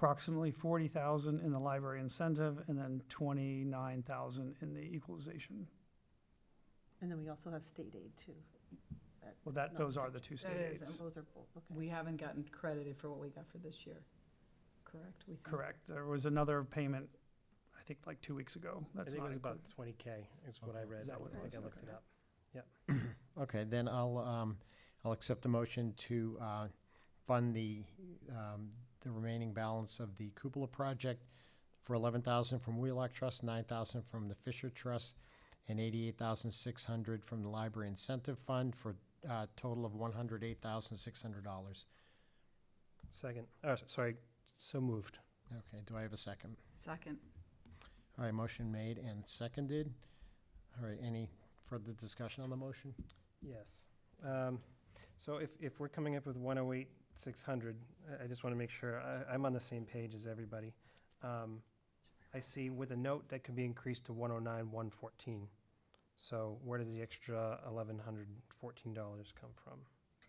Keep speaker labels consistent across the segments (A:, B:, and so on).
A: approximately forty thousand in the library incentive and then twenty-nine thousand in the equalization.
B: And then we also have state aid too.
A: Well, that,
B: That's not
A: those are the
B: touched.
A: two
C: That
A: state
C: is,
A: aids.
C: um,
B: Those are both, okay.
C: We haven't gotten credited for what we got for this year, correct? We think?
A: Correct. There was another payment, I think like two weeks ago.
D: I
A: That's
D: think it
A: not
D: was about
A: included.
D: twenty K is what I
E: Okay.
D: read.
A: Is that
D: I
A: what it
D: don't think
A: was?
D: I looked
A: Okay.
D: it up.
E: Okay, then I'll, um, I'll accept a motion to, uh, fund the, um, the remaining balance of the cupola project for eleven thousand from Wheelock Trust, nine thousand from the Fisher Trust, and eighty-eight thousand six hundred from the Library Incentive Fund for, uh, total of one hundred eight thousand six hundred dollars.
D: Second, oh, s- sorry, so moved.
E: Okay, do I have a second?
C: Second,
E: All right, motion made and seconded. All right, any further discussion on the motion?
D: Yes. Um, so if, if we're coming up with one oh eight, six hundred, I, I just want to make sure I, I'm on the same page as everybody. Um, I see with a note that could be increased to one oh nine, one fourteen. So where does the extra eleven hundred fourteen dollars come from?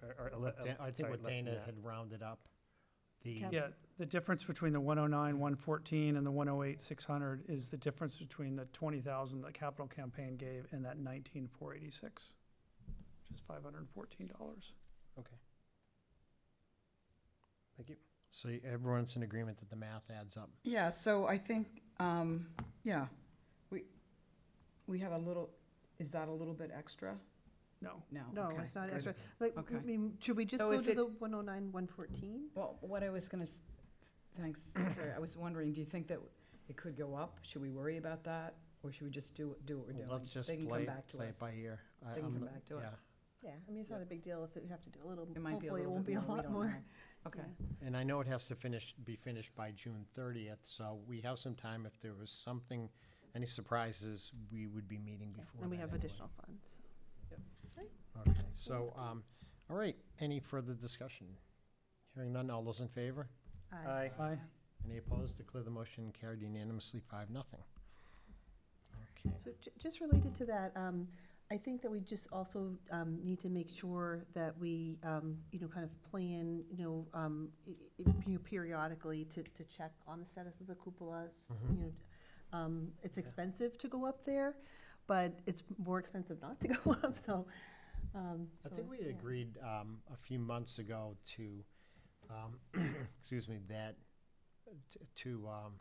D: Or, or, ele-
E: What Da- I think
D: sorry,
E: what
D: less than
E: Dana
D: that.
E: had rounded up, the,
B: Cap-
A: Yeah, the difference between the one oh nine, one fourteen and the one oh eight, six hundred is the difference between the twenty thousand that capital campaign gave and that nineteen, four eighty-six, which is five hundred and fourteen dollars.
D: Thank you.
E: so everyone's in agreement that the math adds up.
F: Yeah, so I think, um, yeah, we, we have a little, is that a little bit extra?
A: No,
F: No.
B: No,
F: okay,
B: it's not
F: good.
B: extra. Like,
F: Okay.
B: I mean, should we just
C: So
B: go
C: if
B: to
C: it-
B: the one oh nine, one fourteen?
C: well, what I was gonna, s- thanks, Carrie, I was wondering, do you think that it could go up? Should we worry about that, or should we just do, do what we're
E: Well,
C: doing?
E: Let's just
C: They can come
E: play,
C: back to
E: play
C: us.
E: it by ear. Uh, I-
C: They can
E: I'm
C: come
E: not-
C: back to
E: yeah.
C: us.
B: Yeah, I mean, it's not a big deal if we have to do a little,
C: It might be a
B: hopefully it
C: little
B: won't be
C: bit
B: a
C: more, we
B: lot
C: don't
B: more.
C: know. Okay,
E: And I know it has to finish, be finished by June thirtieth, so we have some time. If there was something, any surprises, we would be meeting
B: Yeah,
E: before
B: And we
E: that
B: have
E: anyway.
B: additional funds.
E: Okay, So, um, all right, any further discussion? Hearing none, all those in favor?
B: Aye.
D: Aye.
A: aye.
E: Any opposed? Declare the motion carried unanimously, five, nothing. Okay.
B: So ju- just related to that, um, I think that we just also, um, need to make sure that we, um, you know, kind of plan, you know, um, i- i- you know, periodically to, to check on the status of the cupolas.
E: Mhm.
B: You know, um, it's
D: Yeah.
B: expensive to go up there, but it's more expensive not to go up, so, um.
E: I
B: so,
E: think we
B: yeah.
E: had agreed um, a few months ago to, um, excuse me, that, t- to um,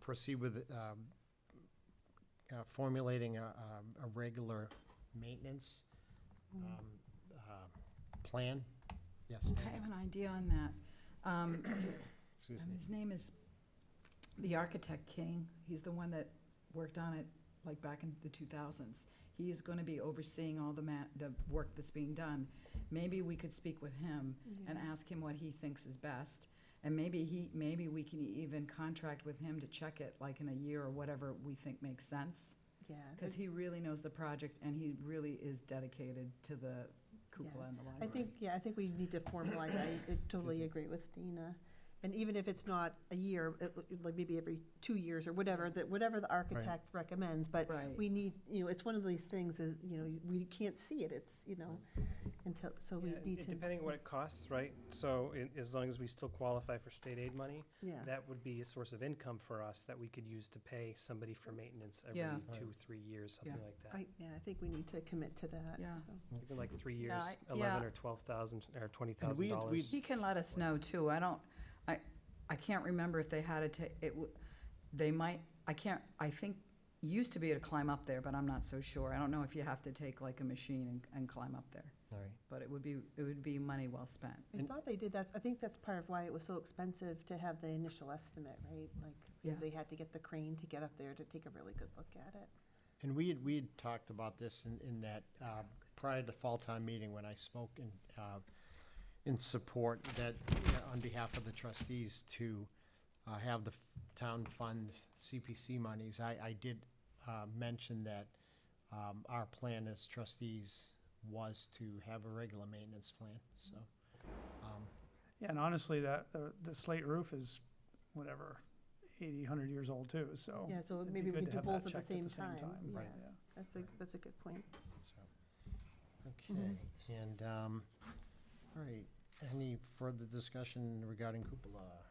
E: proceed with um, uh, formulating a um, a regular maintenance
B: Mm.
E: um, uh, plan. Yes,
C: I
E: Dana?
C: have an idea on that. Um,
E: excuse
C: Um,
E: me.
C: His name is the Architect King. He's the one that worked on it like back in the two thousands. He is gonna be overseeing all the ma- the work that's being done. Maybe we could speak with him
B: Mm-hmm.
C: and ask him what he thinks is best. And maybe he, maybe we can even contract with him to check it like in a year or whatever we think makes sense.
B: Yeah.
C: Cause he really knows the project and he really is dedicated to the cupola and the
B: I
C: library.
B: think, yeah, I think we need to formalize, I I totally agree with Dina. And even if it's not a year, it- like maybe every two years or whatever, that, whatever the architect recommends, but
C: Right.
B: we need, you know, it's one of these things is, you know, we can't see it, it's, you know, until, so we
D: Yeah,
B: need
D: it-
B: to,
D: Depending on what it costs, right? So i- as long as we still qualify for state aid money,
B: yeah.
D: that would be a source of income for us that we could use to pay somebody for maintenance every
C: Yeah.
E: Right.
D: two, three years, something like that.
B: I, yeah, I think we need to commit to that.
C: Yeah.
B: so.
D: Even like three
C: Yeah,
D: years,
C: I-
D: eleven
C: yeah.
D: or twelve thousand, or twenty
E: And
D: thousand
E: we'd-
D: dollars.
E: we'd-
C: He can let us know too. I don't, I, I can't remember if they had a, ta- it, w- they might, I can't, I think, used to be to climb up there, but I'm not so sure. I don't know if you have to take like a machine and, and climb up there,
E: All right.
C: but it would be, it would be money well spent.
B: I
E: And-
B: thought they did that, I think that's part of why it was so expensive to have the initial estimate, right? Like,
C: Yeah.
B: because they had to get the crane to get up there to take a really good look at it.
E: And we had, we had talked about this in, in that, uh, prior to fall time meeting, when I spoke in, uh, in support that, uh, on behalf of the trustees to, uh, have the f- town fund CPC monies, I, I did, uh, mention that, um, our plan as trustees was to have a regular maintenance plan, so, um,
A: Yeah, and honestly, that, the- the slate roof is whatever, eighty, hundred years old too, so.
B: Yeah, so
A: Oh, it'd be
B: maybe we
A: good to
B: do
A: have
B: both
A: that
B: at the
A: checked at
B: same time. Yeah,
E: Right.
B: that's a, that's a good point.
E: so. Okay, and, um, all right, any further discussion regarding cupola?